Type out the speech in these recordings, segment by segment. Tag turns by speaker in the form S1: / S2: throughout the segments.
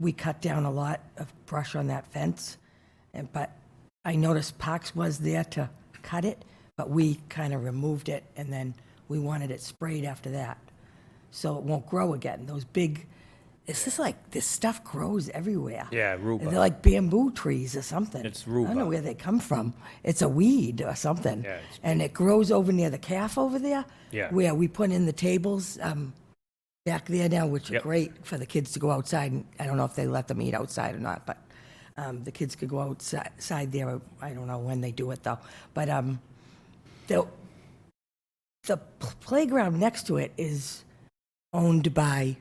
S1: we cut down a lot of brush on that fence, and, but I noticed Parks was there to cut it, but we kind of removed it, and then we wanted it sprayed after that, so it won't grow again. Those big, this is like, this stuff grows everywhere.
S2: Yeah, rhubarb.
S1: They're like bamboo trees or something.
S2: It's
S1: I don't know
S2: rhubarb.
S1: where they come from. It's a weed or something.
S2: Yeah, it's
S1: And it grows over near the calf over there.
S2: Yeah.
S1: Where we put in the tables, um, back there now, which are
S2: Yep.
S1: great for the kids to go outside. and I don't know if they let them eat outside or not, but um, the kids could go outside side there. I don't know when they do it though. But um, the the p- playground next to it is owned by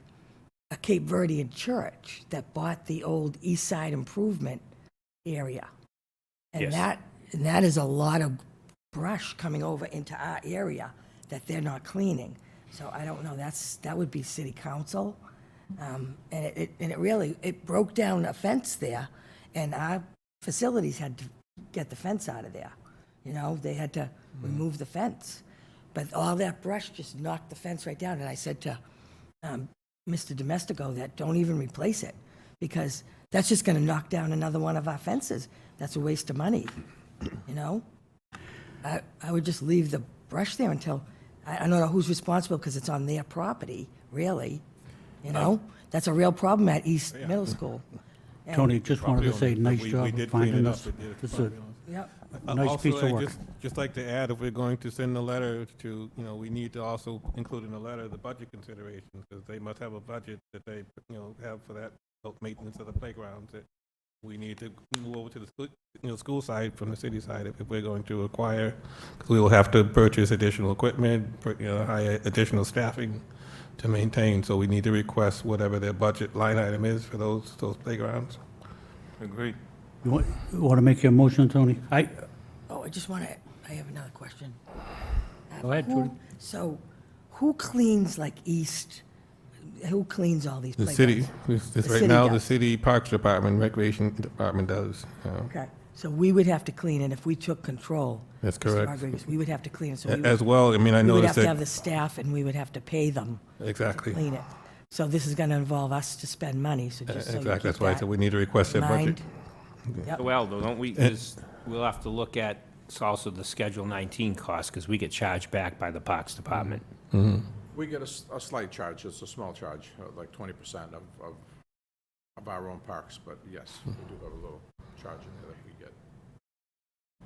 S1: a Cape Verdean church that bought the old East Side Improvement area, and
S2: Yes.
S1: that and that is a lot of brush coming over into our area that they're not cleaning. So I don't know, that's, that would be city council. Um, And it- it, and it really, it broke down a fence there, and our facilities had to get the fence out of there. You know, they had to remove the fence. But all that brush just knocked the fence right down, and I said to um, Mr. Domestico that don't even replace it, because that's just gonna knock down another one of our fences. That's a waste of money, you know? I, I would just leave the brush there until, I, I don't know who's responsible because it's on their property, really. You know, that's a real problem at East Middle School. And-
S3: Tony, just wanted to say,
S4: Property
S3: nice
S4: owners, but we- we
S3: job
S4: did
S3: of
S4: clean
S3: finding
S4: it up.
S3: this.
S4: It is
S3: This is
S4: property owners.
S1: Yep,
S3: a nice
S4: Also,
S3: piece of
S4: I'd
S3: work.
S4: just- Just like to add, if we're going to send a letter to, you know, we need to also include in the letter the budget considerations, because they must have a budget that they, you know, have for that uh, maintenance of the playgrounds that we need to move over to the, school- you know, school side from the city side if if we're going to acquire, because we will have to purchase additional equipment, pur- you know, hire additional staffing to maintain, so we need to request whatever their budget line item is for those, those playgrounds.
S2: Agreed.
S3: You want to make your motion, Tony? I,
S1: oh, I just want to, I have another question. Uh,
S3: Go ahead,
S1: Who-
S3: Judy.
S1: So, who cleans like East, who cleans all these
S4: The
S1: playgrounds?
S4: city, this- this
S1: The
S4: right
S1: city
S4: now, the
S1: does.
S4: city Parks Department, Recreation Department does. yeah.
S1: Okay, so we would have to clean it if we took control.
S4: That's
S1: Mr.
S4: correct.
S1: Rodriguez, we would have to clean it, so we
S4: A- As
S1: would,
S4: well, I mean, I
S1: we would
S4: noticed
S1: have to have the
S4: that,
S1: staff and we would have to pay them to
S4: exactly,
S1: clean it. So this is going to involve us to spend money, so just so you
S4: E, exactly,
S1: keep
S4: that's why I
S1: that
S4: said we need to request
S1: in
S4: their budget.
S1: mind.
S2: Well, though, don't we,
S4: Eh.
S2: just, we'll have to look at s- also the Schedule 19 costs, because we get charged back by the Parks Department.
S5: We get a, s- a slight charge, it's a small charge, uh, like twenty percent of, of, of our own parks, but yes, we
S6: Hmm.
S5: do have a little charge in there that we get.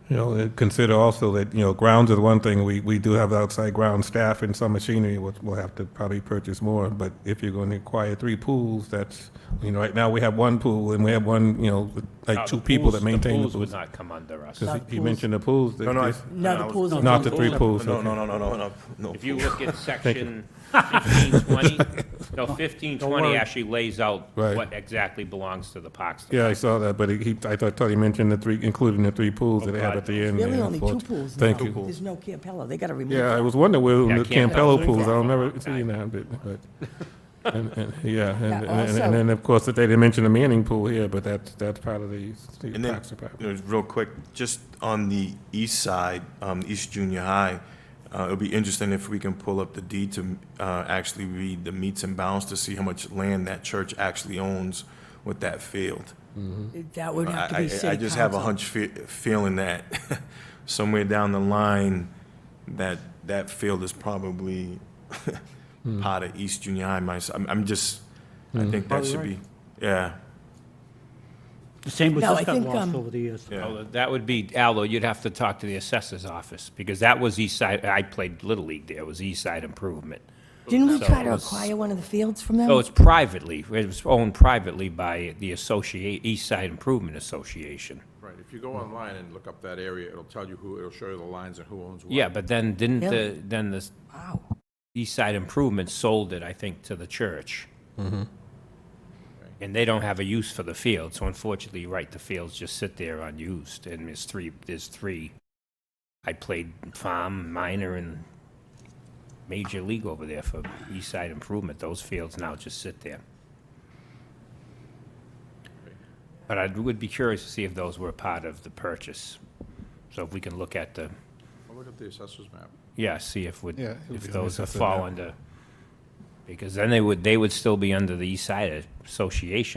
S4: You know, and consider also that, you know, grounds is one thing, we, we do have outside ground staff and some machinery, we'll, we'll have to probably purchase more, but if you're going to acquire three pools, that's, you know, right now, we have one pool, and we have one, you know,
S2: Uh,
S4: like two
S2: the
S4: people
S2: pools-
S4: that maintain the
S2: pools would
S4: pools.
S2: not come under us.
S4: Because
S1: the
S4: he
S1: pools.
S4: mentioned the pools. that
S6: No, no, I-
S4: just-
S1: No, the
S6: I was-
S1: pools are-
S4: Not the three pools,
S6: No,
S4: okay.
S6: no, no, no, no, no, no.
S2: If you look at section 1520, no, 1520 actually lays out
S4: Right.
S2: what exactly belongs to the Parks Department.
S4: Yeah, I saw that, but he, I thought, thought he mentioned the three, including the three pools that they have at the end.
S1: Really
S4: there.
S1: only two pools now.
S4: Thank you.
S1: There's no Campello, they got to remove
S4: Yeah, I
S1: it.
S4: was wondering
S2: Yeah,
S4: where the
S2: Campbell's
S4: Campello pools, I don't remember seeing that, but, but, and, and, yeah, and, and- and- and then, of course, that they didn't mention the Manning pool here, but that's, that's part of the, the
S6: And then,
S4: Parks Department.
S6: you know, real quick, just on the east side, um, East Junior High, uh, it'll be interesting if we can pull up the deed to, uh, actually read the meets and bounds to see how much land that church actually owns with that field.
S1: That would have to
S6: I,
S1: be
S6: I- I
S1: city
S6: just have a
S1: council.
S6: hunch fe- feeling that somewhere down the line, that, that field is probably
S1: Hmm.
S6: part of East Junior High, my, I'm, I'm just, I think that should be, yeah,
S3: the same was
S1: No, I
S3: just got
S1: think, um,
S3: lost over the years.
S6: yeah.
S2: Although That would be, Aldo, you'd have to talk to the assessor's office, because that was East Side, I played Little League there, it was East Side Improvement.
S1: Didn't we
S2: So
S1: try to
S2: it was-
S1: acquire one of the fields from them?
S2: So Oh, it's privately, it was owned privately by the associate, East Side Improvement Association.
S5: Right, if you go online and look up that area, it'll tell you who, it'll show you the lines and who owns what.
S2: Yeah, but then didn't
S1: Really?
S2: the, then the
S1: Wow,
S2: East Side Improvement sold it, I think, to the church. And they don't have a use for the field, so unfortunately, you're right, the fields just sit there unused, and there's three, there's three. I played farm, minor, and major league over there for East Side Improvement. Those fields now just sit there. But I would be curious to see if those were part of the purchase. So if we can look at the,
S5: I'll Look up the assessor's map.
S2: yeah, see if would,
S4: Yeah, it would be
S2: if
S4: on
S2: those
S4: the
S2: would
S4: assessment
S2: fall
S4: map.
S2: under, because then they would, they would still be under the East Side Association,